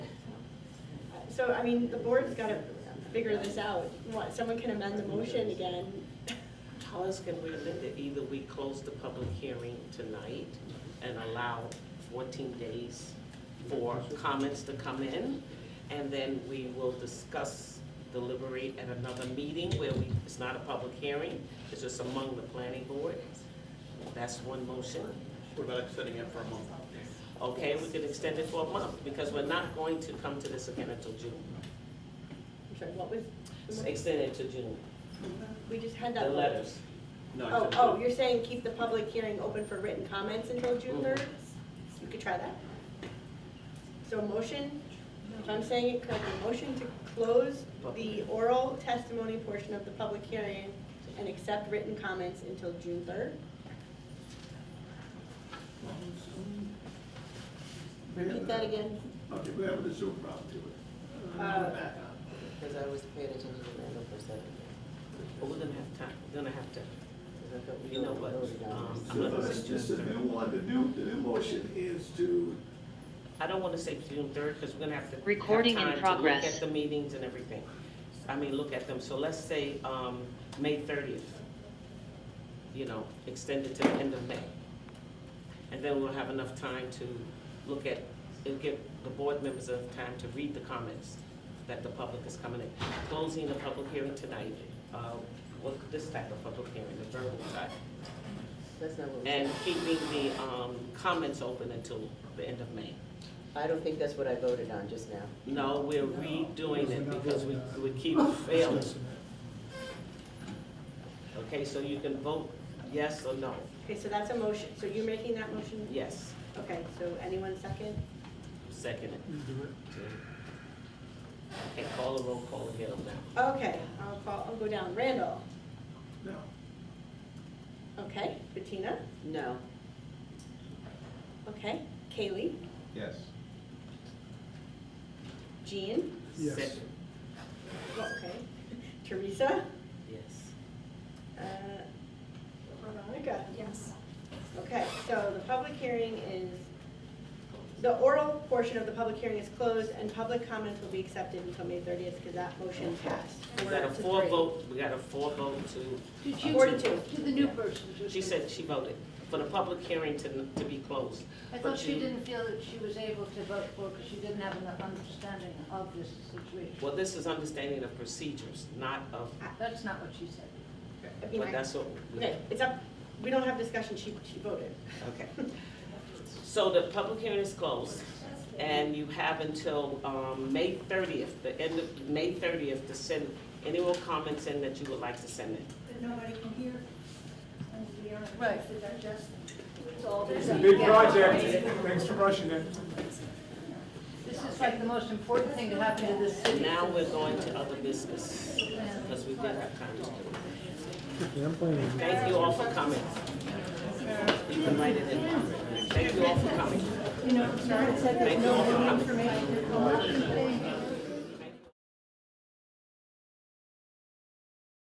so, I mean, the board's gotta figure this out. What, someone can amend the motion again? How else can we amend it? Either we close the public hearing tonight and allow fourteen days for comments to come in, and then we will discuss, deliberate at another meeting where we, it's not a public hearing, it's just among the planning board. That's one motion. What about extending it for a month? Okay, we could extend it for a month, because we're not going to come to this again until June. I'm sorry, what was, Extend it to June, we just had the that. letters. No, I Oh, said- oh, you're saying keep the public hearing open for written comments until June Mhm. third? You could try that. So a motion, if I'm saying it correctly, motion to close the oral testimony portion of the public hearing and accept written comments until June third? Repeat that again. Okay, we're having a Zoom problem too. Uh, Back on. Because I was paying attention to Randall for a second. But we're gonna have time, we're gonna have to, you know what, um, So I'm gonna, that's just a new one, the new, the new motion is to, I don't wanna say June third, because we're gonna have to. have Recording in time to Look progress. at the meetings and everything. I mean, look at them, so let's say, um, May thirtieth. You know, extend it to the end of May. And then we'll have enough time to look at, it'll give the board members enough time to read the comments that the public is coming in. Closing the public hearing tonight, uh, what, this type of public hearing, the verbal type. That's not what, And keeping the, um, comments open until the end of May. I don't think that's what I voted on just now. No, we're redoing it because we, we keep failing. Okay, so you can vote yes or no. Okay, so that's a motion, so you're making that motion? Yes, Okay, so anyone second? second it. Okay, call the roll, call again on that. Okay, I'll call, I'll go down. Randall? no, Okay. Bettina? No, Okay. Kaylee? Yes. Jean? Yes. Second, Oh, Okay. Teresa? Yes. Uh, Veronica? Yes. Okay, so the public hearing is, the oral portion of the public hearing is closed and public comments will be accepted until May thirtieth because that motion passed. We got a Four to four three. vote, we got a four vote to, Did Four you, to two. to the new person, just. she said she voted for the public hearing to, to be closed. I but thought she you- didn't feel that she was able to vote for, because she didn't have enough understanding of this situation. Well, this is understanding of procedures, not of, That's not what she said. I mean, but I- that's what. we- Okay, it's up, we don't have discussion, she, she voted. Okay. So the public hearing is closed, and you have until um, May 30th, the end of, May 30th, to send any more comments in that you would like to send in. that nobody can hear, and we are Right. to digest. It's a big project, thanks for rushing it. This is like the most important thing that happened to this city. Now we're going to other business, because we did have time to do it. Thank you all for coming. You can write it in. Thank you all for coming. You know, Sarah said there's no new information, there's a lot of things